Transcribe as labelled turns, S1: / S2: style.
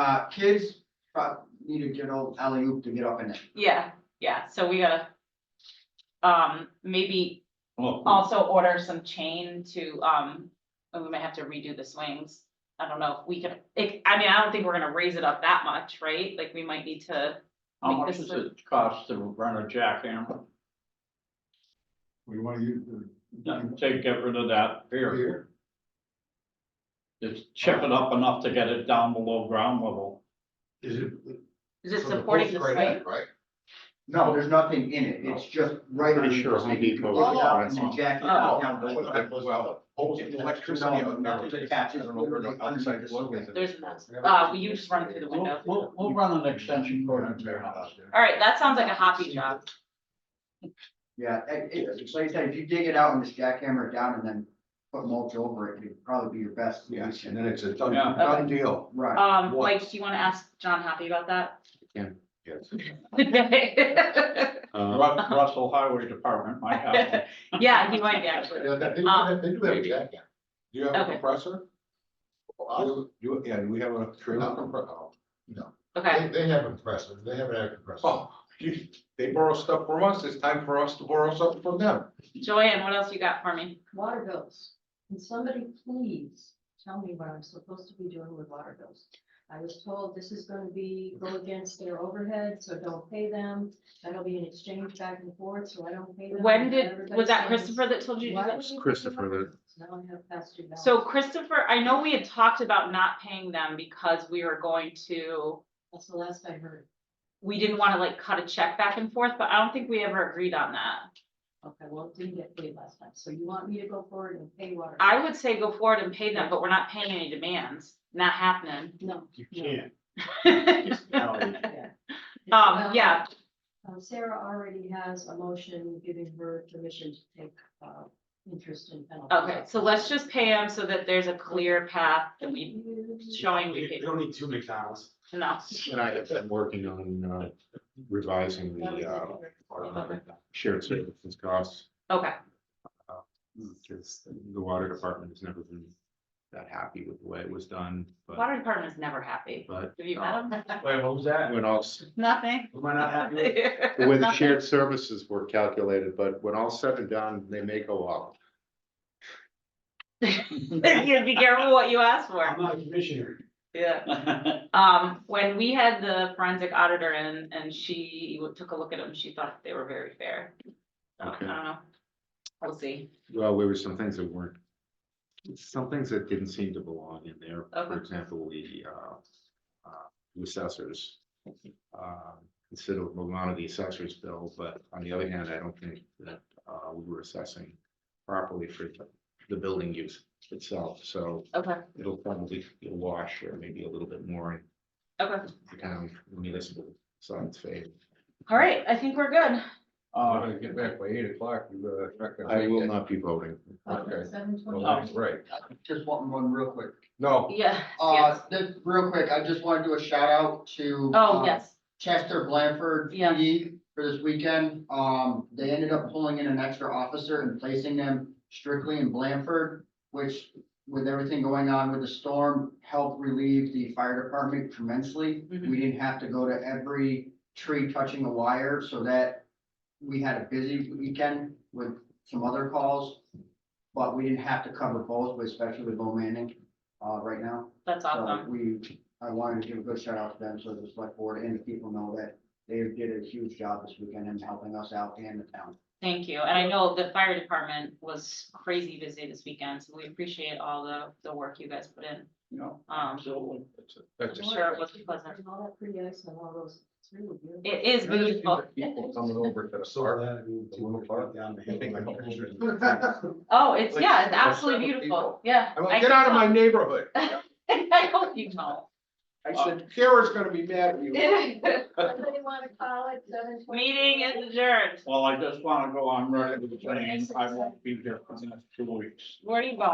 S1: Uh, kids, uh, need to get old alley oop to get up in it.
S2: Yeah, yeah, so we gotta. Um, maybe
S3: Well,
S2: also order some chain to, um, and we might have to redo the swings. I don't know if we can, it, I mean, I don't think we're gonna raise it up that much, right? Like, we might need to.
S3: how
S2: make
S3: much
S2: this
S3: does it cost to run a jackhammer?
S4: We wanna use the.
S3: No, Take, get rid of that period. Just chip it up enough to get it down below ground level.
S4: Is it?
S2: Is it
S4: so the
S2: supporting
S4: post
S2: the
S4: right
S2: swing?
S4: in, Right?
S1: No, there's nothing in it, it's just right.
S5: Pretty
S1: on-
S5: sure Home Depot
S1: Pull it
S5: would
S1: out
S5: want
S1: and then
S5: some.
S1: jack it
S2: Oh.
S1: down
S5: That's
S1: below.
S5: what I- Well, post and electricity out there,
S1: Nothing attaches
S5: and over the outside plug is-
S2: There's, uh, we you just run through the
S3: We'll,
S2: window.
S3: we'll, we'll run an extension cord into your house.
S2: All right, that sounds like a hobby job.
S1: Yeah, it, it, like I said, if you dig it out and just jackhammer it down and then put mulch over it, it'd probably be your best
S5: Yes,
S1: solution.
S5: and then it's a done,
S3: Yeah.
S5: done deal.
S1: Right,
S2: Um,
S5: What?
S2: Mike, do you wanna ask John Happy about that?
S5: Yes.
S6: Uh.
S3: Ru- Russell Highway Department might have. one.
S2: Yeah, he might be actually.
S4: Yeah, they, they do
S2: Um,
S4: have- they do have a jacket.
S5: Do you have a
S2: Okay.
S5: compressor?
S4: Us?
S5: Do you, yeah, do we have a
S4: Not
S5: trailer?
S4: compre- oh, No,
S2: Okay,
S4: they, they have compressors, they have an air compressor.
S5: Oh, you- they borrow stuff from us, it's time for us to borrow something from them.
S2: Joanne, what else you got for me?
S7: Water bills. Can somebody please tell me what I'm supposed to be doing with water bills? I was told this is gonna be, go against their overhead, so don't pay them. That'll be an exchange back and forth, so I don't pay them.
S2: When did,
S7: Everybody
S2: was that
S7: says,
S2: Christopher that told you to do
S7: "Why
S2: that?
S7: would you pay
S5: Christopher
S7: water
S5: that-
S7: bills? Now I have past due balance.
S2: So Christopher, I know we had talked about not paying them because we were going to,
S7: That's the last I heard.
S2: we didn't wanna like cut a check back and forth, but I don't think we ever agreed on that.
S7: Okay, well, it didn't get paid last time, so you want me to go forward and pay water? bills?
S2: I would say go forward and pay them, but we're not paying any demands, not happening.
S7: No.
S3: You
S7: can't.
S3: No,
S7: yeah.
S2: Um, yeah,
S7: Um, Sarah already has a motion giving her permission to take, uh, interest in penalty.
S2: okay, so let's just pay them so that there's a clear path that we
S7: Sure.
S2: showing we paid
S6: don't need two McDonald's.
S2: enough.
S5: And I have been working on uh, revising
S7: That was
S5: the uh,
S7: it.
S5: our shared services costs.
S2: Okay,
S5: Because the water department has never been that happy with the way it was done, but,
S2: water department is never happy.
S5: but
S2: Have you met them?
S6: Wait, what was that?
S5: when all, s-
S2: Nothing.
S6: Am I not happy with? it?
S5: the way the shared services were calculated, but when all said and done, they may go up.
S2: You be careful what you ask for.
S6: I'm not a commissioner.
S2: Yeah. Um, when we had the forensic auditor in and she w- took a look at them, she thought they were very fair. So, I
S5: Okay.
S2: don't know. We'll see.
S5: Well, there were some things that weren't, some things that didn't seem to belong in there. For
S2: Okay.
S5: example, the uh, uh, the assessors. uh, Considerable amount of the assessors bill, but on the other hand, I don't think that uh, we were assessing properly for the- the building use itself. So
S2: Okay,
S5: it'll probably be a wash or maybe a little bit more in
S2: okay.
S5: the town municipal side's favor.
S2: All right, I think we're good.
S3: Uh,
S4: Oh, get back by eight o'clock, you better check.
S5: I will not be voting.
S4: Okay.
S7: Seven twenty.
S4: right.
S1: just want one real quick.
S4: No,
S2: Uh, Yeah,
S1: Uh, this, real quick, I just wanna do a shout out to.
S2: Oh,
S1: uh,
S2: yes.
S1: Chester Blanford
S2: Yeah.
S1: PD for this weekend. Um, they ended up pulling in an extra officer and placing them strictly in Blanford, which with everything going on with the storm, helped relieve the fire department tremendously.
S2: Mhm.
S1: We didn't have to go to every tree touching a wire so that we had a busy weekend with some other calls. But we didn't have to cover both, but especially with Bo Manning, uh, right now.
S2: That's
S1: So
S2: awesome.
S1: we, I wanted to give a good shout out to them, so the select board and the people know that they did a huge job this weekend in helping us out and the town.
S2: Thank you. And I know the fire department was crazy busy this weekend, so we appreciate all the, the work you guys put in.
S1: You know,
S2: Um,
S3: absolutely.
S4: that's
S2: I'm sure it was pleasant.
S7: All that pretty ice and all those, it's really beautiful.
S2: it is beautiful.
S4: people coming over to the
S6: So
S4: park.
S6: that, I mean, two o'clock down the hill.
S5: I think I'm
S2: Oh, it's, yeah, it's
S4: Like,
S2: absolutely
S4: several
S2: beautiful.
S4: people.
S2: Yeah. I
S5: I'm like, get
S2: can
S5: out of my
S2: tell."
S5: neighborhood.
S2: I hope you know.
S5: I said, Kara's gonna be mad at you.
S7: Somebody wanna call it seven twenty?
S2: Meeting is
S3: Uh,
S2: adjourned.
S3: Well, I just want to go on record with saying I won't be there for the next two weeks.
S2: Where do you go?